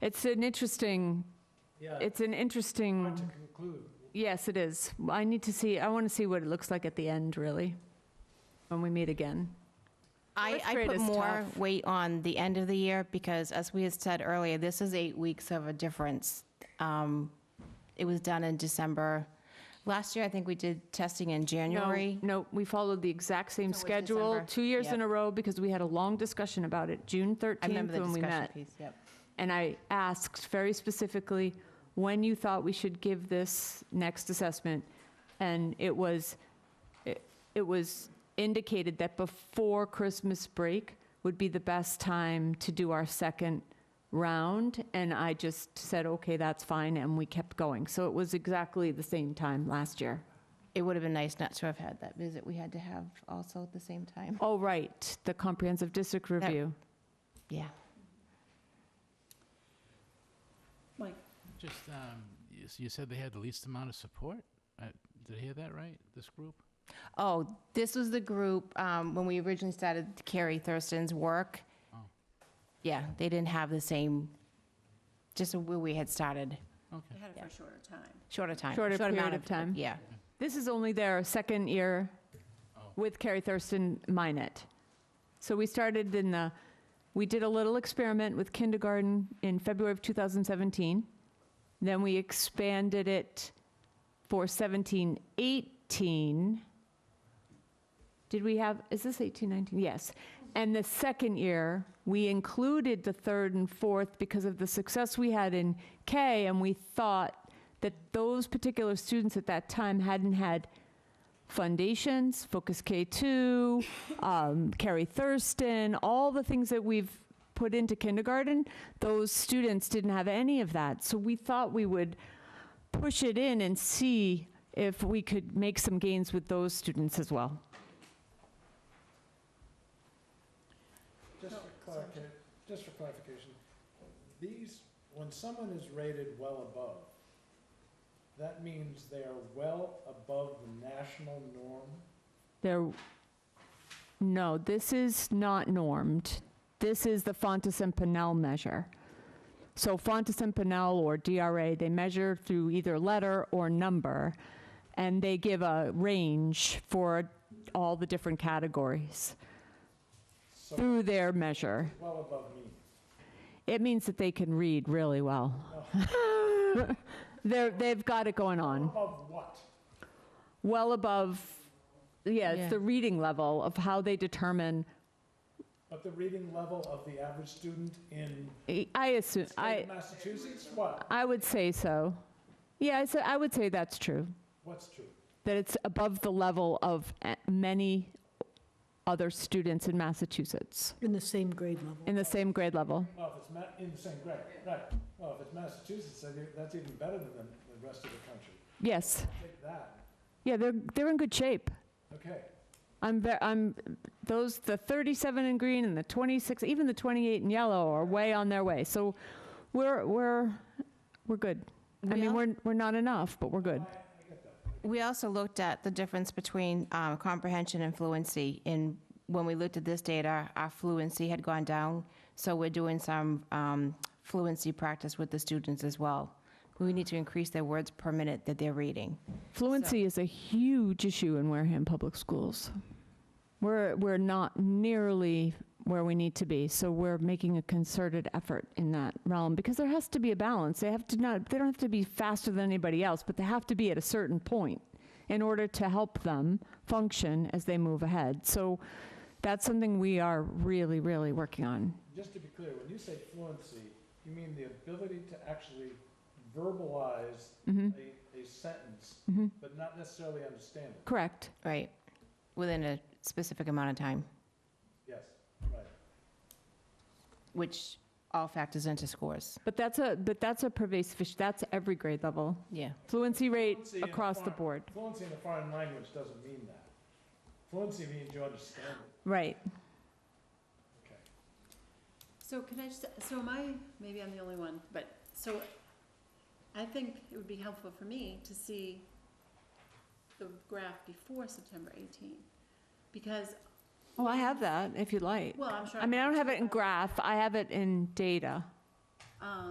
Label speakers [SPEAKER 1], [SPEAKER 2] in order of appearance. [SPEAKER 1] It's an interesting,
[SPEAKER 2] Yeah,
[SPEAKER 1] it's an
[SPEAKER 2] hard to
[SPEAKER 1] interesting,
[SPEAKER 2] conclude.
[SPEAKER 1] yes, it is. I need to see, I want to see what it looks like at the end, really, when we meet again.
[SPEAKER 3] I,
[SPEAKER 1] Fourth
[SPEAKER 3] I
[SPEAKER 1] grade
[SPEAKER 3] put
[SPEAKER 1] is
[SPEAKER 3] more
[SPEAKER 1] tough.
[SPEAKER 3] weight on the end of the year because as we had said earlier, this is eight weeks of a difference. Um, It was done in December. Last year, I think we did testing in
[SPEAKER 1] No,
[SPEAKER 3] January.
[SPEAKER 1] No, we followed the exact same
[SPEAKER 3] So it's
[SPEAKER 1] schedule,
[SPEAKER 3] December.
[SPEAKER 1] two years
[SPEAKER 3] Yep.
[SPEAKER 1] in a row, because we had a long discussion about it, June
[SPEAKER 3] I
[SPEAKER 1] 13th
[SPEAKER 3] remember the
[SPEAKER 1] when we
[SPEAKER 3] discussion
[SPEAKER 1] met.
[SPEAKER 3] piece, yep.
[SPEAKER 1] And I asked very specifically when you thought we should give this next assessment. And it was, it it was indicated that before Christmas break would be the best time to do our second round. And I just said, okay, that's fine, and we kept going. So it was exactly the same time last year.
[SPEAKER 3] It would have been nice not to have had that visit we had to have also at the same time.
[SPEAKER 1] Oh, right, the comprehensive district review.
[SPEAKER 3] Yeah.
[SPEAKER 4] Just, um, you, s- you said they had the least amount of support? I, did I hear that right, this group?
[SPEAKER 3] Oh, this was the group, um, when we originally started Carrie Thurston's work.
[SPEAKER 4] Oh.
[SPEAKER 3] Yeah, they didn't have the same, just where we had started,
[SPEAKER 4] Okay.
[SPEAKER 5] They had it for a shorter time.
[SPEAKER 3] shorter time.
[SPEAKER 1] Shorter
[SPEAKER 3] short amount
[SPEAKER 1] period of time.
[SPEAKER 3] Yeah.
[SPEAKER 1] This is only their second year
[SPEAKER 4] Oh.
[SPEAKER 1] with Carrie Thurston Minot. So we started in the, we did a little experiment with kindergarten in February of 2017. Then we expanded it for 17, 18. Did we have, is this 18, 19? Yes. And the second year, we included the third and fourth because of the success we had in K, and we thought that those particular students at that time hadn't had foundations, Focus K2, um, Carrie Thurston, all the things that we've put into kindergarten, those students didn't have any of that. So we thought we would push it in and see if we could make some gains with those students as well.
[SPEAKER 2] Just for clarification, just for clarification, these, when someone is rated well above, that means they are well above the national norm?
[SPEAKER 1] There, no, this is not normed. This is the Fontes and Pinnell measure. So Fontes and Pinnell or DRA, they measure through either letter or number, and they give a range for all the different categories
[SPEAKER 2] So
[SPEAKER 1] through their measure.
[SPEAKER 2] well above me.
[SPEAKER 1] It means that they can read really well. They're, they've got it going on.
[SPEAKER 2] Above what?
[SPEAKER 1] Well above, yeah,
[SPEAKER 3] Yeah.
[SPEAKER 1] it's the reading level of how they determine
[SPEAKER 2] But the reading level of the average student in
[SPEAKER 1] I assume, I,
[SPEAKER 2] state Massachusetts, what?
[SPEAKER 1] I would say so. Yeah, I, s- I would say that's true,
[SPEAKER 2] What's true?
[SPEAKER 1] that it's above the level of a- many other students in Massachusetts
[SPEAKER 6] In the same grade level.
[SPEAKER 1] in the same grade level.
[SPEAKER 2] Well, if it's ma, in the same grade, right. Well, if it's Massachusetts, then you- that's even better than the the rest of the country.
[SPEAKER 1] Yes,
[SPEAKER 2] Take that,
[SPEAKER 1] yeah, they're, they're in good shape.
[SPEAKER 2] okay.
[SPEAKER 1] I'm, ve- I'm, those, the 37 in green and the 26, even the 28 in yellow are way on their way. So we're, we're, we're good. I
[SPEAKER 3] We
[SPEAKER 1] mean,
[SPEAKER 3] al-
[SPEAKER 1] we're, we're not enough, but we're good.
[SPEAKER 3] We also looked at the difference between um, comprehension and fluency. And when we looked at this data, our fluency had gone down. So we're doing some um, fluency practice with the students as well. We need to increase their words per minute that they're reading.
[SPEAKER 1] Fluency is a huge issue in Wareham Public Schools. We're, we're not nearly where we need to be, so we're making a concerted effort in that realm because there has to be a balance. They have to not, they don't have to be faster than anybody else, but they have to be at a certain point in order to help them function as they move ahead. So that's something we are really, really working on.
[SPEAKER 2] Just to be clear, when you say fluency, you mean the ability to actually verbalize a, a sentence, but not necessarily understand it.
[SPEAKER 1] Correct.
[SPEAKER 3] Right. Within a specific amount of time,
[SPEAKER 2] Yes, right.
[SPEAKER 3] which all factors into scores.
[SPEAKER 1] But that's a, but that's a pervasive issue. That's every grade level.
[SPEAKER 3] Yeah.
[SPEAKER 1] Fluency rate
[SPEAKER 2] Fluency in a
[SPEAKER 1] across the
[SPEAKER 2] foreign-
[SPEAKER 1] board.
[SPEAKER 2] Fluency in a foreign language doesn't mean that. Fluency means you understand it,
[SPEAKER 1] Right.
[SPEAKER 2] okay.
[SPEAKER 5] So can I just, so am I, maybe I'm the only one, but, so I think it would be helpful for me to see the graph before September 18, because,
[SPEAKER 1] Oh, I have that if you'd like.
[SPEAKER 5] well, I'm sure.
[SPEAKER 1] I mean, I don't have it in graph, I have it in data.
[SPEAKER 5] Um,